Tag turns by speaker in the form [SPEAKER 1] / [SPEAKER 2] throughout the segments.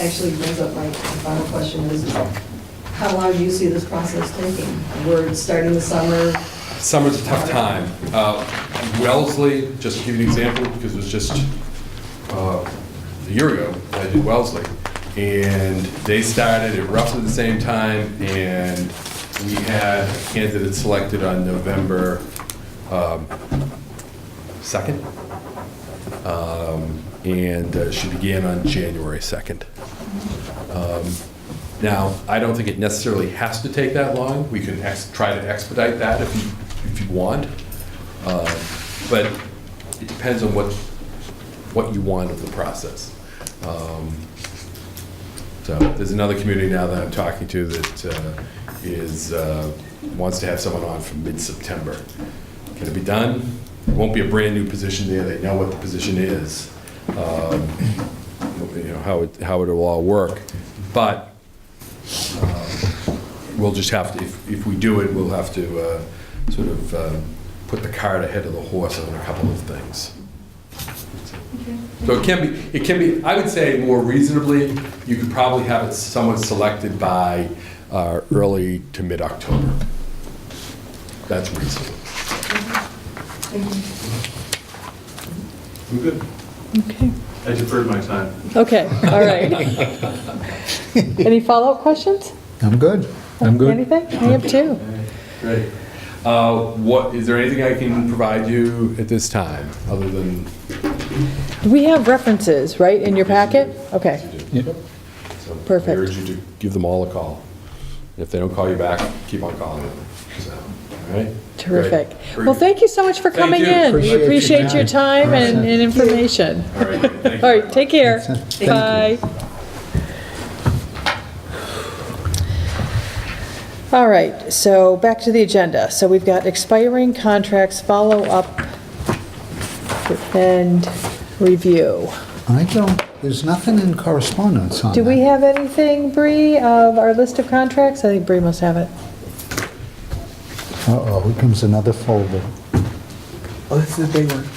[SPEAKER 1] actually brings up my final question is, how long do you see this process taking? We're starting the summer,
[SPEAKER 2] Summer's a tough time. Uh, Wellesley, just to give you an example, because it was just uh, a year ago, I did Wellesley, and they started at roughly the same time, and we had candidates selected on November um, 2nd, Um, and uh, she began on January 2nd. Now, I don't think it necessarily has to take that long. We can ex- try to expedite that if you, if you want. Uh, But it depends on what, what you want of the process. Um, So there's another community now that I'm talking to that uh, is, uh, wants to have someone on from mid-September. Can it be done? It won't be a brand-new position there. They know what the position is, um, you know, how it, how it'll all work. But we'll just have to, if, if we do it, we'll have to uh, sort of uh, put the cart ahead of the horse on a couple of things. So it can be, it can be, I would say more reasonably, you could probably have it somewhat selected by uh, early to mid-October. That's reasonable.
[SPEAKER 3] I'm good.
[SPEAKER 4] Okay,
[SPEAKER 3] I deferred my time.
[SPEAKER 4] okay, all right. Any follow-up questions?
[SPEAKER 5] I'm good. I'm good.
[SPEAKER 4] Anything? I have two.
[SPEAKER 2] Great. Uh, What, is there anything I can provide you at this time, other than?
[SPEAKER 4] Do we have references, right, in your packet? Okay,
[SPEAKER 2] Yep. So I
[SPEAKER 4] Perfect.
[SPEAKER 2] urge you to give them all a call. If they don't call you back, keep on calling them, so, all right?
[SPEAKER 4] terrific.
[SPEAKER 2] Great.
[SPEAKER 4] Well, thank you so much for
[SPEAKER 2] Thank
[SPEAKER 4] coming
[SPEAKER 2] you.
[SPEAKER 4] in. We
[SPEAKER 5] Appreciate your
[SPEAKER 4] appreciate your
[SPEAKER 5] time.
[SPEAKER 4] time and and information.
[SPEAKER 2] All right, thank you.
[SPEAKER 4] All right, take care.
[SPEAKER 5] Thank you.
[SPEAKER 4] Bye. All right, so back to the agenda. So we've got expiring contracts, follow-up, and review.
[SPEAKER 5] I don't, there's nothing in correspondence on that.
[SPEAKER 4] Do we have anything, Bree, of our list of contracts? I think Bree must have it.
[SPEAKER 5] Uh-oh, here comes another folder.
[SPEAKER 6] Oh, this is a big one.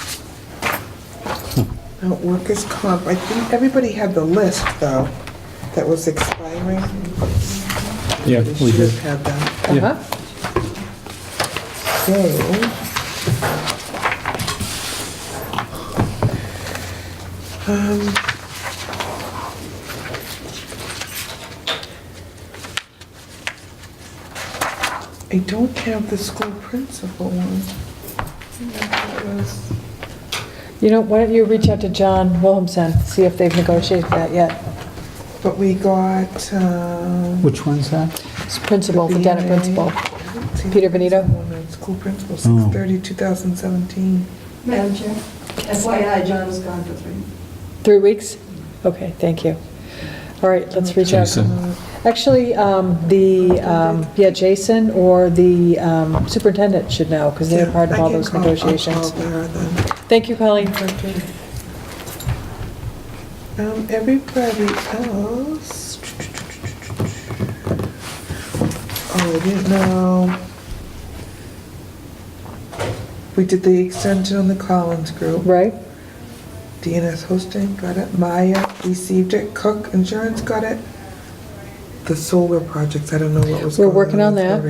[SPEAKER 6] Now, Workers' comp, I think everybody had the list, though, that was expiring.
[SPEAKER 7] Yeah,
[SPEAKER 6] They
[SPEAKER 7] we
[SPEAKER 6] should
[SPEAKER 7] did.
[SPEAKER 6] have had that.
[SPEAKER 4] Uh-huh.
[SPEAKER 6] So... um, I don't have the school principal one. That was-
[SPEAKER 4] You know, why don't you reach out to John Williamson, see if they've negotiated that yet?
[SPEAKER 6] But we got, um...
[SPEAKER 5] Which one's that?
[SPEAKER 4] It's principal, the Dennett
[SPEAKER 6] DNA.
[SPEAKER 4] principal. Peter Benito?
[SPEAKER 6] School principal,
[SPEAKER 5] Oh.
[SPEAKER 6] 6:30, 2017.
[SPEAKER 1] Madam Chair. FYI, John is gone for three.
[SPEAKER 4] Three weeks? Okay, thank you. All right, let's reach out.
[SPEAKER 7] Jason.
[SPEAKER 4] Actually, um, the, um, yeah, Jason or the um, superintendent should know, because they're part of all those negotiations. Thank you, Colleen.
[SPEAKER 6] Um, everybody else. Oh, I didn't know. We did the extension on the Collins group.
[SPEAKER 4] Right?
[SPEAKER 6] DNS hosting, got it. Maya received it. Cook Insurance got it. The solar projects, I don't know what was
[SPEAKER 4] We're working
[SPEAKER 6] going on.
[SPEAKER 4] on
[SPEAKER 6] with
[SPEAKER 4] that.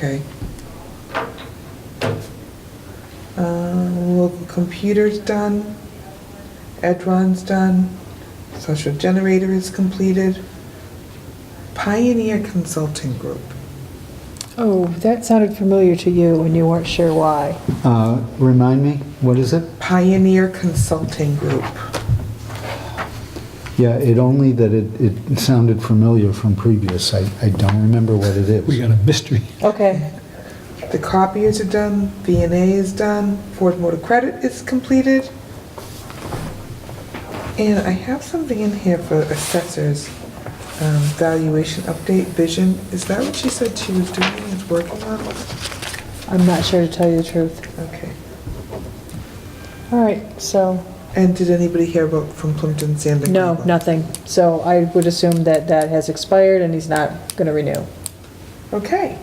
[SPEAKER 6] Marie. Okay. Um, Local computer's done. Edron's done. Social generator is completed. Pioneer Consulting Group.
[SPEAKER 4] Oh, that sounded familiar to you, and you weren't sure why.
[SPEAKER 5] Uh, Remind me, what is it?
[SPEAKER 6] Pioneer Consulting Group.
[SPEAKER 5] Yeah, it only that it, it sounded familiar from previous. I, I don't remember what it is.
[SPEAKER 7] We got a mystery.
[SPEAKER 4] Okay,
[SPEAKER 6] The copiers are done, VNA is done, Ford Motor Credit is completed. And I have something in here for assessors, um, valuation update, vision. Is that what she said she was doing, is working on?
[SPEAKER 4] I'm not sure to tell you the truth.
[SPEAKER 6] Okay.
[SPEAKER 4] All right, so,
[SPEAKER 6] And did anybody hear about from Plimpton Sand and
[SPEAKER 4] no,
[SPEAKER 6] Gravel?
[SPEAKER 4] nothing. So I would assume that that has expired, and he's not going to renew.
[SPEAKER 6] Okay.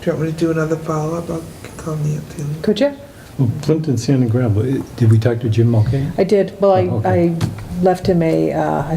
[SPEAKER 6] Do you want me to do another follow-up? I'll call Neil too.
[SPEAKER 4] Could you?
[SPEAKER 7] Well, Plimpton Sand and Gravel, eh, did we talk to Jim Mulcahy?
[SPEAKER 4] I did, well, I, I left him a, uh, a